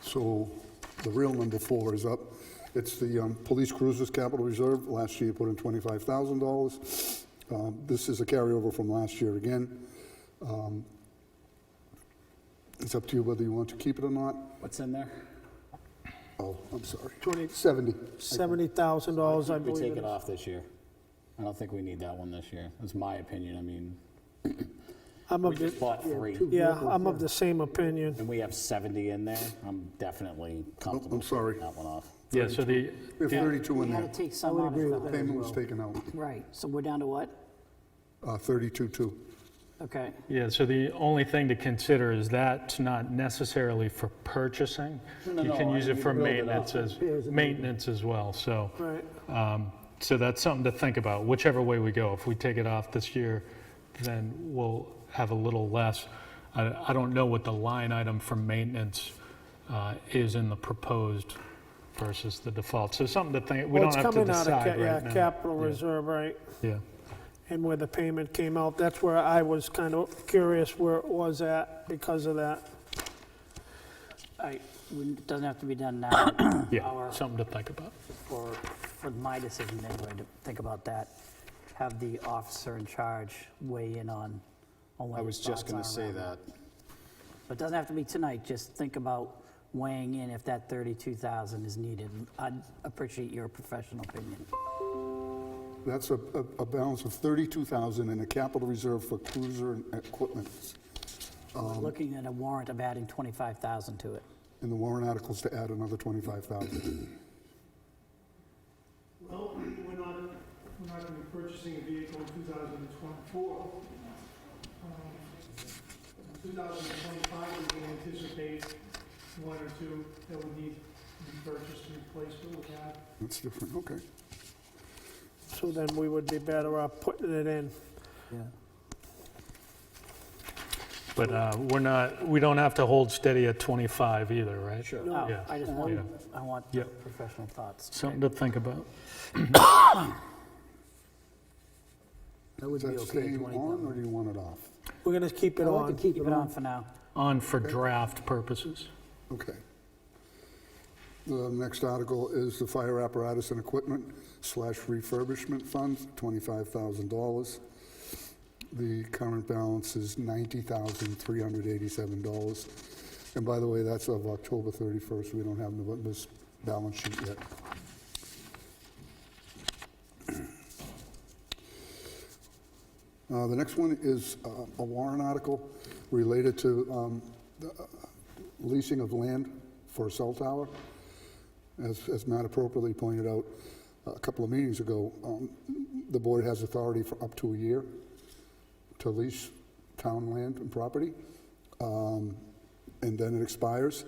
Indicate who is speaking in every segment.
Speaker 1: So the real number four is up. It's the um, Police Cruisers Capital Reserve. Last year, you put in $25,000. Um, This is a carryover from last year again. Um, It's up to you whether you want to keep it or not.
Speaker 2: What's in there?
Speaker 1: Oh, I'm sorry.
Speaker 3: Twenty-
Speaker 1: 70.
Speaker 3: $70,000, I
Speaker 2: We
Speaker 3: believe
Speaker 2: take
Speaker 3: it
Speaker 2: it
Speaker 3: is.
Speaker 2: off this year. I don't think we need that one this year. That's my opinion. I mean,
Speaker 3: I'm
Speaker 2: we
Speaker 3: of,
Speaker 2: just
Speaker 3: the-
Speaker 2: bought three
Speaker 3: yeah, I'm of the same opinion.
Speaker 2: and we have 70 in there. I'm definitely comfortable
Speaker 1: Oh, I'm sorry.
Speaker 2: taking that one off.
Speaker 4: Yeah, so the,
Speaker 1: We have 32 in
Speaker 5: We
Speaker 1: there.
Speaker 5: had to take some out of that.
Speaker 1: Payment was taken out,
Speaker 5: Right, so we're down to what?
Speaker 1: Uh, 32.2.
Speaker 5: Okay,
Speaker 4: yeah, so the only thing to consider is that's not necessarily for purchasing.
Speaker 2: no,
Speaker 4: You can
Speaker 2: no,
Speaker 4: use it
Speaker 2: you
Speaker 4: for
Speaker 2: build it
Speaker 4: maintenance
Speaker 2: up.
Speaker 4: as, maintenance as well, so.
Speaker 3: Right.
Speaker 4: um, So that's something to think about, whichever way we go. If we take it off this year, then we'll have a little less. I, I don't know what the line item for maintenance uh, is in the proposed versus the default. So something to think, we
Speaker 3: Well,
Speaker 4: don't
Speaker 3: it's
Speaker 4: have to
Speaker 3: coming out of ca-
Speaker 4: decide
Speaker 3: yeah,
Speaker 4: right now.
Speaker 3: Capital
Speaker 4: Yeah.
Speaker 3: Reserve, right?
Speaker 4: Yeah,
Speaker 3: And where the payment came out, that's where I was kind of curious where it was at because of that.
Speaker 5: all right, we- it doesn't have to be done now.
Speaker 4: yeah,
Speaker 5: Our-
Speaker 4: something to think about.
Speaker 5: For, for my decision anyway, to think about that, have the officer in charge weigh in on, on what
Speaker 2: I was
Speaker 5: his
Speaker 2: just
Speaker 5: thoughts
Speaker 2: going
Speaker 5: are
Speaker 2: to say that.
Speaker 5: around But it doesn't have to be tonight, just think about weighing in if that 32,000 is needed. I'd appreciate your professional opinion.
Speaker 1: That's a a- a balance of 32,000 in a capital reserve for cruiser and equipment.
Speaker 5: We're
Speaker 4: Um,
Speaker 5: looking at a warrant of adding 25,000 to it.
Speaker 1: And the warrant articles to add another 25,000.
Speaker 6: Well, we're not, we're not gonna be purchasing a vehicle in 2024. Um, In 2025, we can anticipate one or two that would need to be purchased and replaced, but we have
Speaker 1: That's different, okay.
Speaker 3: So then we would be better off putting it in.
Speaker 4: But uh, we're not, we don't have to hold steady at 25 either, right? Sure.
Speaker 5: Oh,
Speaker 4: Yeah.
Speaker 5: I just want,
Speaker 4: Yeah.
Speaker 5: I want
Speaker 4: Yeah.
Speaker 5: professional thoughts.
Speaker 4: Something to think about.
Speaker 5: That would
Speaker 1: Is that staying on or do you want it off?
Speaker 3: We're going to keep it
Speaker 5: I like
Speaker 3: on.
Speaker 5: to keep it on for now.
Speaker 4: On for draft purposes.
Speaker 1: Okay. The next article is the fire apparatus and equipment slash refurbishment fund, $25,000. The current balance is $90,387. And by the way, that's of October 31st. We don't have November's balance sheet yet. Uh, The next one is uh, a warrant article related to um, leasing of land for a cell tower. As, as Matt appropriately pointed out a couple of meetings ago, um, the board has authority for up to a year to lease town land and property. Um, And then it expires,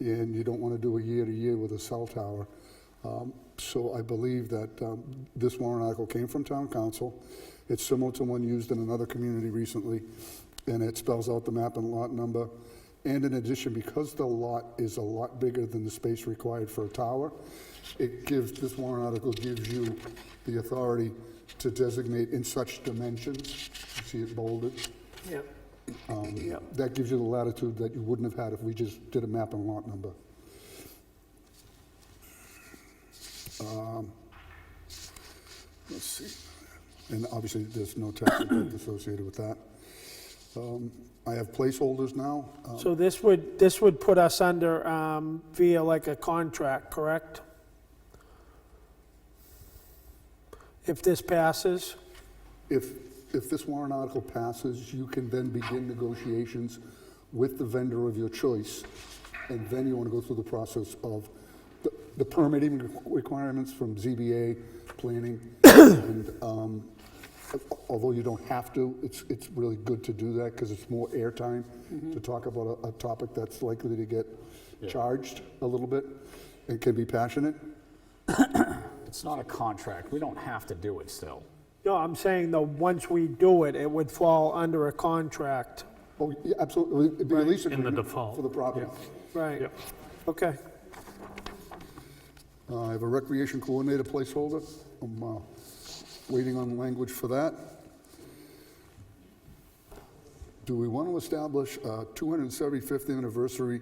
Speaker 1: and you don't want to do a year-to-year with a cell tower. Um, So I believe that um, this warrant article came from town council. It's similar to one used in another community recently, and it spells out the map and lot number. And in addition, because the lot is a lot bigger than the space required for a tower, it gives, this warrant article gives you the authority to designate in such dimensions, You see it bolded,
Speaker 3: Yep.
Speaker 1: um, That gives you the latitude that you wouldn't have had if we just did a map and lot number. Um, Let's see. And obviously, there's no tax impact associated with that. Um, I have placeholders now. Um,
Speaker 3: So this would, this would put us under um, via like a contract, correct? If this passes?
Speaker 1: If, if this warrant article passes, you can then begin negotiations with the vendor of your choice, and then you want to go through the process of the- the permitting requ- requirements from ZBA, planning, and um, although you don't have to, it's, it's really good to do that, because it's more airtime to talk about a, a topic that's likely to get charged a little bit, and can be passionate.
Speaker 2: It's not a contract. We don't have to do it still.
Speaker 3: No, I'm saying though, once we do it, it would fall under a contract.
Speaker 1: Oh, yeah, absolutely, it'd be a lease
Speaker 4: in the
Speaker 1: agreement
Speaker 4: default,
Speaker 1: For the property.
Speaker 3: Right. Okay.
Speaker 1: Uh, I have a recreation coordinator placeholder. I'm uh, waiting on language for that. Do we want to establish a 275th anniversary